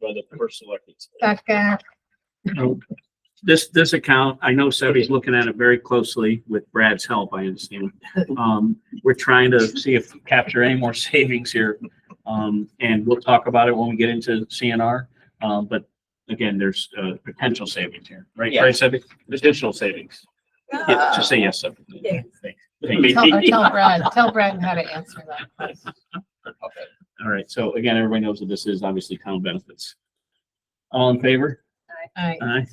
by the first selectman. Second, This, this account, I know Sebby's looking at it very closely with Brad's help, I understand. Um, we're trying to see if we capture any more savings here. Um, and we'll talk about it when we get into CNR. Um, but again, there's, uh, potential savings here, right, Yeah. right, Sebby? Additional savings. Yeah, just say yes, Sebby. Yes. tell, uh, Thank you. tell Brad, tell Brad how to answer that question. Okay. All right, so again, everybody knows that this is obviously town benefits. All in favor? All right, Aye.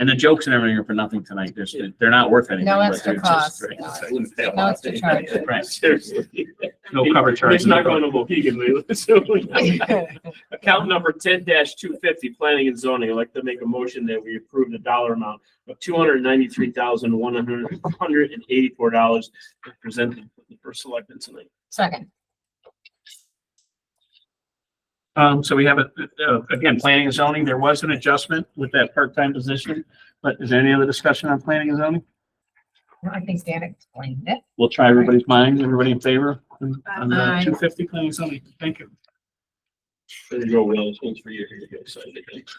And the jokes and everything are for nothing tonight. There's, they're not worth anything. No but extra they're just- cost. right. No extra charge. Right. Seriously. No cover charge. It's not going to Mohegan, Leland. So, Account number ten two fifty, planning and zoning. I'd like to make a motion that we approve the dollar amount of two hundred ninety-three thousand, one hundred, hundred and eighty-four dollars presented for the first selectman tonight. Second, Um, so we have, a- uh, again, planning and zoning, there was an adjustment with that part-time position, but is there any other discussion on planning and zoning? I think Dan explained it. We'll try everybody's minds, everybody in favor on the Aye. two fifty planning and zoning, thank you. There you go, with all those things for you. Here you go. Sign it.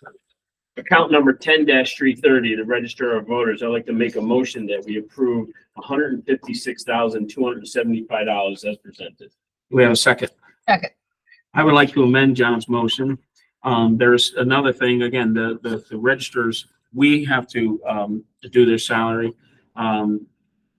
Account number ten three thirty, the register of voters. I'd like to make a motion that we approve hundred and fifty-six thousand, two hundred and seventy-five dollars as presented. We have a second. Second. I would like to amend John's motion. Um, there's another thing, again, the, the, the registers, we have to, um, to do their salary. Um,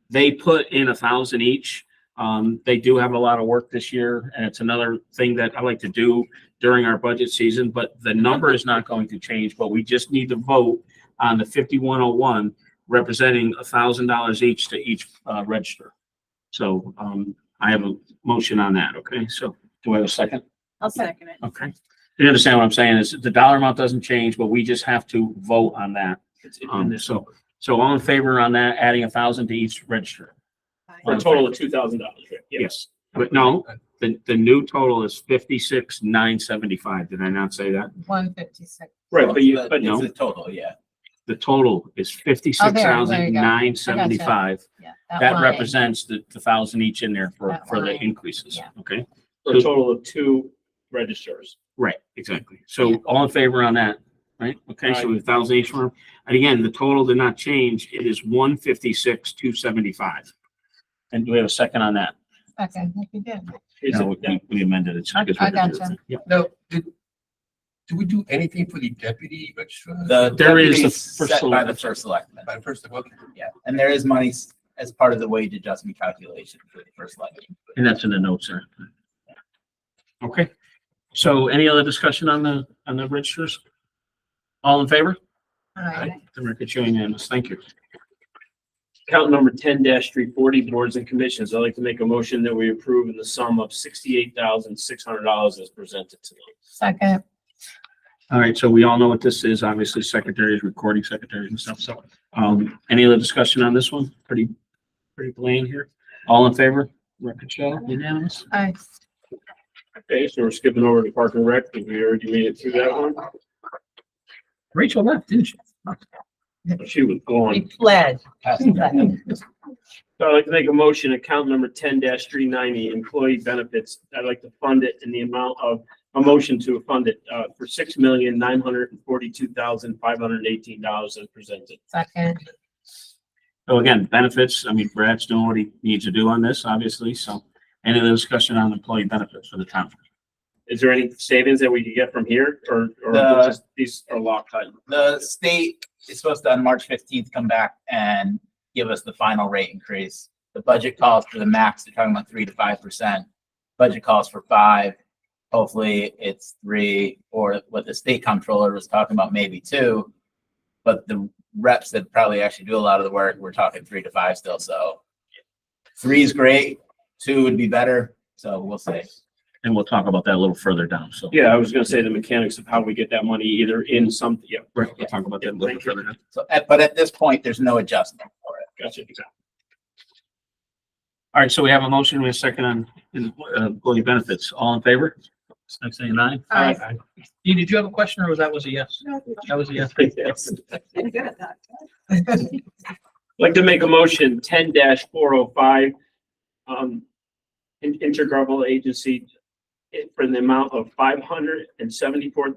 they put in a thousand each. Um, they do have a lot of work this year and it's another thing that I like to do during our budget season, but the number is not going to change, but we just need to vote on the fifty-one oh one representing a thousand dollars each to each, uh, register. So, um, I have a motion on that, okay? So do I have a second? I'll second it. Okay. You understand what I'm saying is the dollar amount doesn't change, but we just have to vote on that. It's in Um, this- so, so all in favor on that, adding a thousand to each register? For a total of two thousand dollars, right? Yeah. Yes. But no, the, the new total is fifty-six, nine seventy-five. Did I not say that? One fifty-six. Right, but you, but no. It's a total, yeah. The total is Oh, fifty-six thousand, nine seventy-five. Yeah. That line. represents the, the thousand each in there for, That for the line, increases. yeah. Okay? for a total of two registers. Right, exactly. So all in favor on that, right? Okay, so a thousand each firm. And again, the total did not change. It is one fifty-six, two seventy-five. And do we have a second on that? Second, if you did. Is No, it- we- we amended it. I- I gotcha. Yeah. Now, did, do we do anything for the deputy registrar? The There is deputy a first is set by the selectman. first selectman. By the first, okay. Yeah, and there is money s- as part of the wage adjustment calculation for the first selectman. And that's in the notes, sir. Okay. So any other discussion on the, on the registers? All in favor? All right. The record showing unanimous. Thank you. Account number ten three forty, boards and commissions. I'd like to make a motion that we approve in the sum of sixty-eight thousand, six hundred dollars as presented tonight. Second, All right, so we all know what this is, obviously secretaries, recording secretaries and stuff, so, um, any other discussion on this one? Pretty, pretty plain here. All in favor? Record show, unanimous? I, Okay, so we're skipping over to Park and Rec. Did we already made it through that one? Rachel left, didn't she? Oh, She was gone. We fled. Pass it down. second, So I'd like to make a motion, account number ten three ninety, employee benefits. I'd like to fund it in the amount of, a motion to fund it, uh, for six million, nine hundred and forty-two thousand, five hundred and eighteen dollars as presented. second, So again, benefits, I mean, Brad's doing what he needs to do on this, obviously, so any other discussion on employee benefits for the town? Is there any savings that we could get from here or, or The- just these are locked in? The state is supposed to on March fifteenth come back and give us the final rate increase. The budget calls for the max, they're talking about three to five percent. Budget calls for five. Hopefully it's three, or what the state comptroller was talking about, maybe two. But the reps that probably actually do a lot of the work, we're talking three to five still, so. Three is great, two would be better, so we'll see. And we'll talk about that a little further down, so. Yeah, I was gonna say the mechanics of how we get that money either in some, yeah, We'll talk about that a little further down. So, at- but at this point, there's no adjustment for it. gotcha. exactly. All right, so we have a motion, we have a second on uh, employee benefits. All in favor? Next thing, nine? Aye. Dee, did you have a question or was that was a yes? That was a yes. Yes. I'm good at that. I'd Like to make a motion ten four oh five. Um, in- intergovernmental agency. eh, For the amount of five hundred and seventy-four thousand